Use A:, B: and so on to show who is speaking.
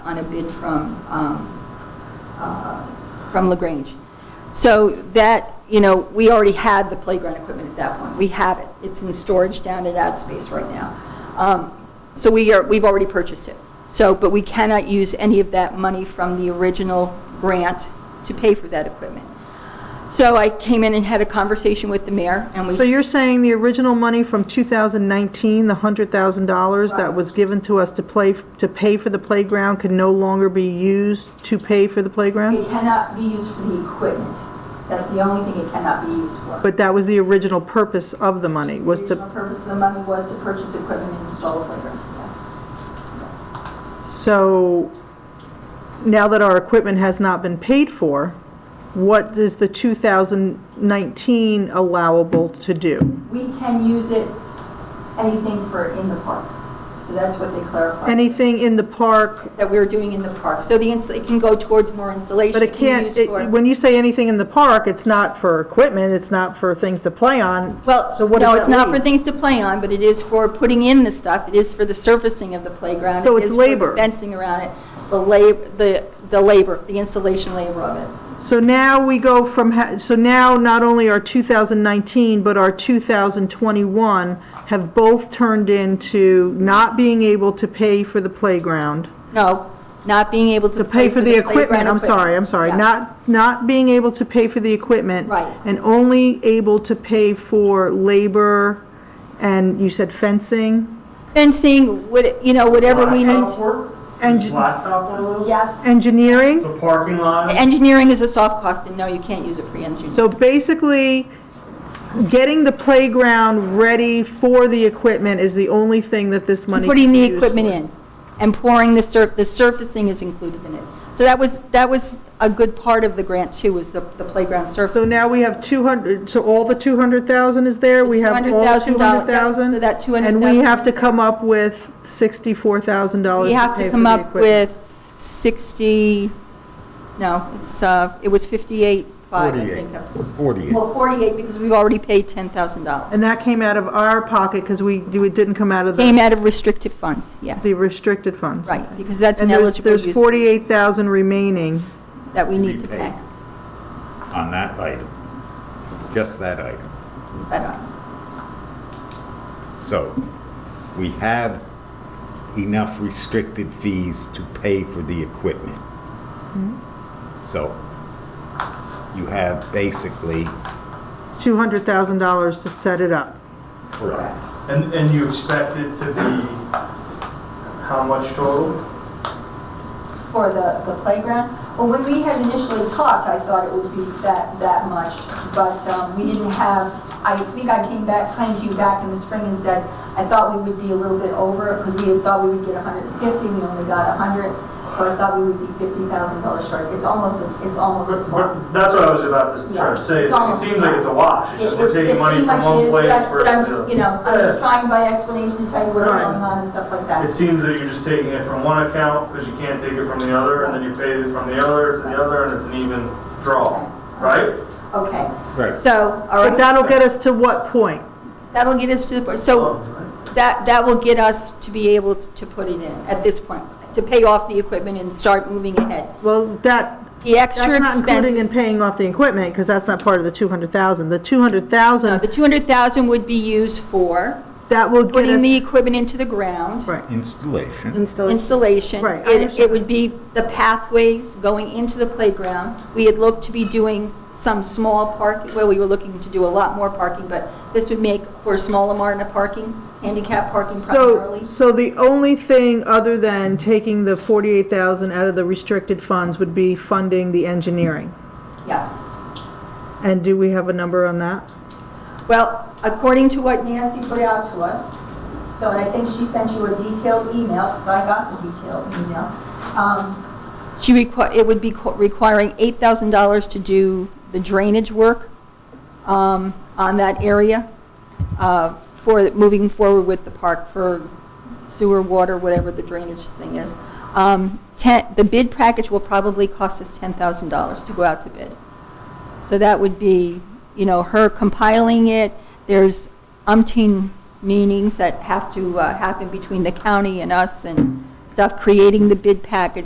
A: on a bid from, um, uh, from LaGrange. So that, you know, we already had the playground equipment at that point. We have it. It's in storage down at Space right now. Um, So we are, we've already purchased it. So, but we cannot use any of that money from the original grant to pay for that equipment. So I came in and had a conversation with the mayor, and we...
B: So you're saying the original money from 2019, the $100,000 that was given to us to play, to pay for the playground could no longer be used to pay for the
A: It
B: playground?
A: cannot be used for the equipment. That's the only thing it cannot be used for.
B: But that was the original purpose of the money, was
A: The
B: to,
A: original purpose of the money was to purchase equipment and install a playground. yeah.
B: so now that our equipment has not been paid for, what is the 2019 allowable to do?
A: We can use it, anything for in the park. So that's what they clarified.
B: Anything in the park,
A: That we're doing in the park. So the, ins- it can go towards more installation.
B: but it
A: can be
B: can't,
A: used
B: it-
A: for-
B: when you say anything in the park, it's not for equipment, it's not for things to play on.
A: Well,
B: so what does
A: no,
B: that
A: it's not for
B: leave?
A: things to play on, but it is for putting in the stuff. It is for the surfacing of the playground.
B: So
A: It
B: it's
A: is for the
B: labor.
A: Fencing around it, the lab, the, the labor, the installation labor of it.
B: So now we go from, ha- so now not only our 2019, but our 2021 have both turned into not being able to pay for the playground,
A: No, not being able to.
B: to pay for the equipment,
A: playground
B: I'm sorry, I'm sorry,
A: Yeah.
B: not, not being able to pay for the equipment.
A: Right.
B: And only able to pay for labor and you said fencing,
A: Fencing, what, you know, whatever we
C: Blacktop
A: need.
C: work?
B: And-
C: Is blacktop one of those?
A: Yes.
B: engineering?
C: The parking lot?
A: Engineering is a soft cost, and no, you can't use it for engineering.
B: So basically, getting the playground ready for the equipment is the only thing that this money can be
A: Putting the
B: used
A: equipment
B: for.
A: in and pouring the surf, the surfacing is included in it. So that was, that was a good part of the grant too, was the, the playground surface.
B: So now we have 200, so all the 200,000 is there? We have all
A: $200,000, yeah,
B: 200,000?
A: so that
B: And we have to
A: $200,000
B: come up with $64,000
A: We
B: to
A: have
B: pay
A: to
B: for
A: come
B: the
A: up
B: equipment.
A: with sixty, no, it's, uh, it was fifty-eight, five, I think. that was-
D: 48.
A: Well, forty-eight, because we've already paid ten thousand dollars.
B: And that came out of our pocket because we, it didn't come out of the
A: Came out of restricted funds, yes,
B: the restricted funds.
A: right, because that's an
B: And there's,
A: eligible
B: there's
A: use
B: 48,000 remaining.
A: that we need
D: be
A: to
D: paid.
A: pay.
D: on that item, just that item.
A: That item.
D: So we have enough restricted fees to pay for the equipment.
A: Hmm?
D: So you have basically,
B: $200,000 to set it up.
D: correct,
C: And, and you expect it to be how much total?
A: For the, the playground? Well, when we had initially talked, I thought it would be that, that much, but um, we didn't have, I think I came back, came to you back in the spring and said, I thought we would be a little bit over, because we had thought we would get 150, we only got 100, so I thought we would be $50,000 short. It's almost, a- it's almost a swap.
C: But That's what I was about to try to say, is it seems like it's a wash, it's just we're taking money from one place
A: But I'm
C: versus
A: just,
C: the
A: you know, I'm just
C: other.
A: trying by explanation to tell you what's
C: Right.
A: going on and stuff like that.
C: It seems that you're just taking it from one account, because you can't take it from the other, and then you pay it from the other to the other, and it's an even draw, right?
A: Okay.
D: Right.
A: So, all
B: But
A: right,
B: that'll get us to what point?
A: that'll get us to the, point. so that, that will get us to be able to put it in at this point, to pay off the equipment and start moving ahead.
B: Well, that,
A: The extra
B: That's not including in
A: expense,
B: paying off the equipment, because that's not part of the 200,000. The
A: no, the
B: 200,000,
A: 200,000 would be used for
B: that will get
A: putting the
B: us...
A: equipment into the ground.
B: Right.
D: installation.
A: Installation.
B: Right, I
A: It, it
B: understand.
A: would be the pathways going into the playground. We had looked to be doing some small park, well, we were looking to do a lot more parking, but this would make for a small amount of parking, handicap parking
B: So,
A: primarily.
B: so the only thing other than taking the 48,000 out of the restricted funds would be funding the engineering.
A: Yes.
B: And do we have a number on that?
A: Well, according to what Nancy put out to us, so and I think she sent you a detailed email, because I got the detailed email. um, She requi, it would be qu- requiring $8,000 to do the drainage work um, on that area uh, for moving forward with the park for sewer, water, whatever the drainage thing is. Um, ten- The bid package will probably cost us $10,000 to go out to bid. So that would be, you know, her compiling it, there's umpteen meetings that have to uh, happen between the county and us and stuff, creating the bid package,